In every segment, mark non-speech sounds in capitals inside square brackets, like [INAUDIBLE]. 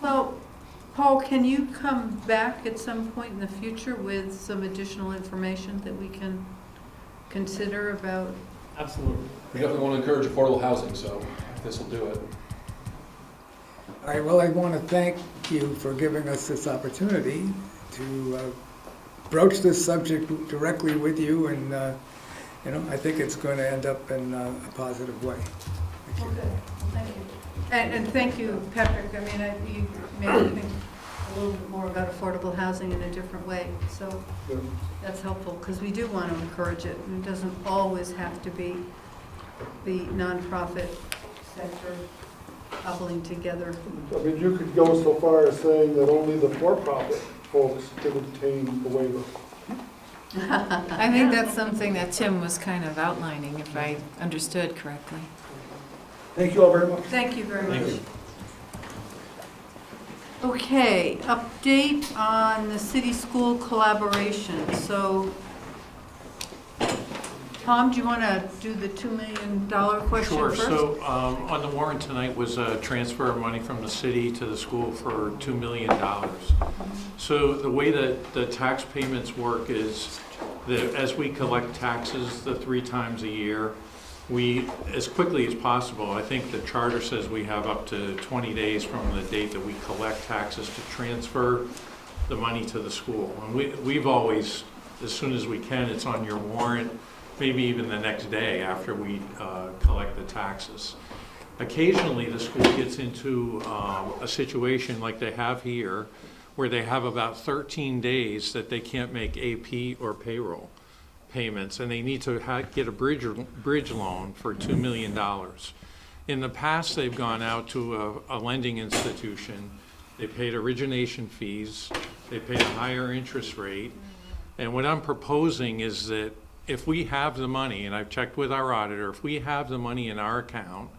Well, Paul, can you come back at some point in the future with some additional information that we can consider about? Absolutely. We definitely want to encourage affordable housing, so this will do it. All right, well, I want to thank you for giving us this opportunity to uh, broach this subject directly with you, and, uh, you know, I think it's going to end up in uh, a positive way. Thank you. thank you. And, and thank you, Patrick, I mean, I, you made me think a little bit more about affordable housing in a different way, so that's helpful, because we do want to encourage it, and it doesn't always have to be the nonprofit sector coupling together. I mean, you could go so far as saying that only the for-profit folks could obtain the waiver. I think that's something that Tim was kind of outlining, if I understood correctly. Thank you all very much. Thank you very much. Okay, update on the city-school collaboration. So, Tom, do you want to do the $2 million question Sure, first? so um, on the warrant tonight was a transfer of money from the city to the school for $2 million. So the way that the tax payments work is that as we collect taxes the three times a year, we, as quickly as possible, I think the charter says we have up to 20 days from the date that we collect taxes to transfer the money to the school. And we, we've always, as soon as we can, it's on your warrant, maybe even the next day after we uh, collect the taxes. Occasionally, the school gets into um, a situation like they have here, where they have about 13 days that they can't make AP or payroll payments, and they need to ha- get a bridge, bridge loan for $2 million. In the past, they've gone out to a, a lending institution, they paid origination fees, they paid a higher interest rate. And what I'm proposing is that if we have the money, and I've checked with our auditor, if we have the money in our account,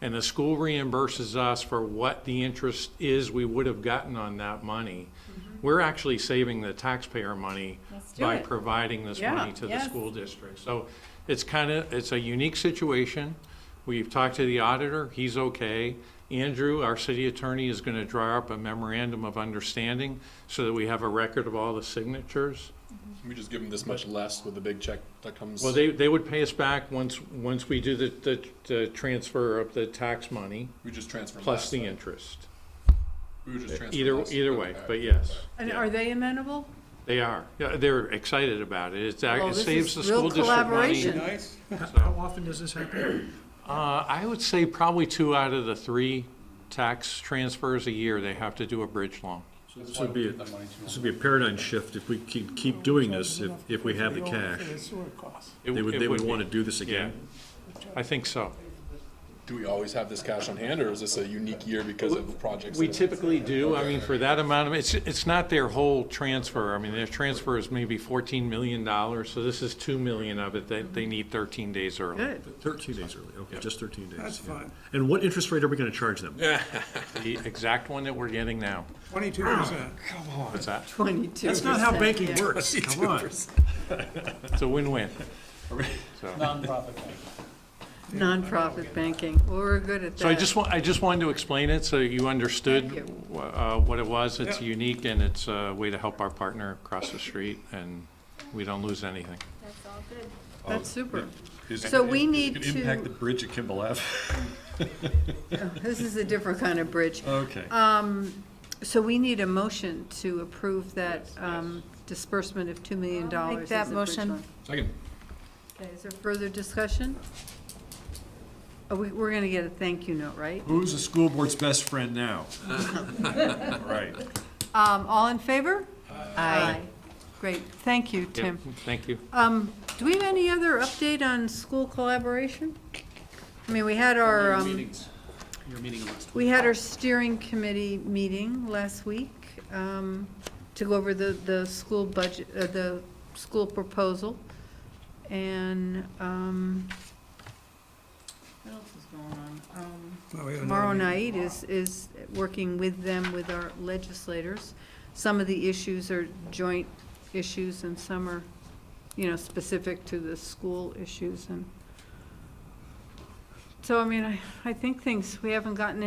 and the school reimburses us for what the interest is we would have gotten on that money, we're actually saving the taxpayer money Mm-hmm. Let's do by it. providing this Yeah, money to the yes. school district. So it's kind of, it's a unique situation. We've talked to the auditor, he's okay. Andrew, our city attorney, is going to draw up a memorandum of understanding so that we have a record of all the signatures. We just give them this much less with the big check that comes. Well, they, they would pay us back once, once we do the, the, the transfer of the tax money We just transfer plus less. the interest. We would just transfer Either, less. either way, Okay. but yes, And are they amenable? they are. Yeah, They're excited about it. It's, Well, it Oh, this saves the is real school district money. collaboration. How often does this happen? Uh, I would say probably two out of the three tax transfers a year, they have to do a bridge loan. This would be, a- this would be a paradigm shift if we keep, keep doing this, if, if we have the cash. It They would, it they would be- want to do this again. I think so. Do we always have this cash on hand, or is this a unique year because of projects? We that- typically do, I mean, for that amount of, it's, it's not their whole transfer, I mean, their transfer is maybe fourteen million dollars, so this is two million of it, that they need thirteen days early. Good. Thirteen days early, okay, just thirteen days. That's yeah. fine. And what interest rate are we going to charge them? The exact one that we're getting now, Twenty-two percent. what's that? 22 That's not how banking works, come on. It's a [LAUGHS] win-win. So- Nonprofit banking, Well, we're good at that. So I just want, I just wanted to explain it so you understood Thank wh- uh, what it was. It's Yeah. unique and it's a way to help our partner across the street and we don't lose anything. That's super. Is- So we it- it need could Impact to- Oh, the bridge at [LAUGHS] Kimball Ave. This is a different kind of bridge. Um, Okay. So we need a motion to approve that um, disbursement of $2 million. I'll make as that a bridge motion. loan. Second. Okay, is there further discussion? Are we, we're gonna get a thank you note, right? Who's the school board's best [LAUGHS] friend now? Right. Um, all in favor? Aye. Great, thank you, Yep. Tim. Thank you. Um, do we have any other update on school collaboration? I mean, we had our, um, we had our steering committee meeting last week, um, to go over the, the school budget, uh, the school proposal. And, um, what else is going on? Um, Well, we Oh, had another Tomorrow meeting. night is, is working with them, with our legislators. Some of the issues are joint issues and some are, you know, specific to the school issues and. So, I mean, I, I think things, we haven't gotten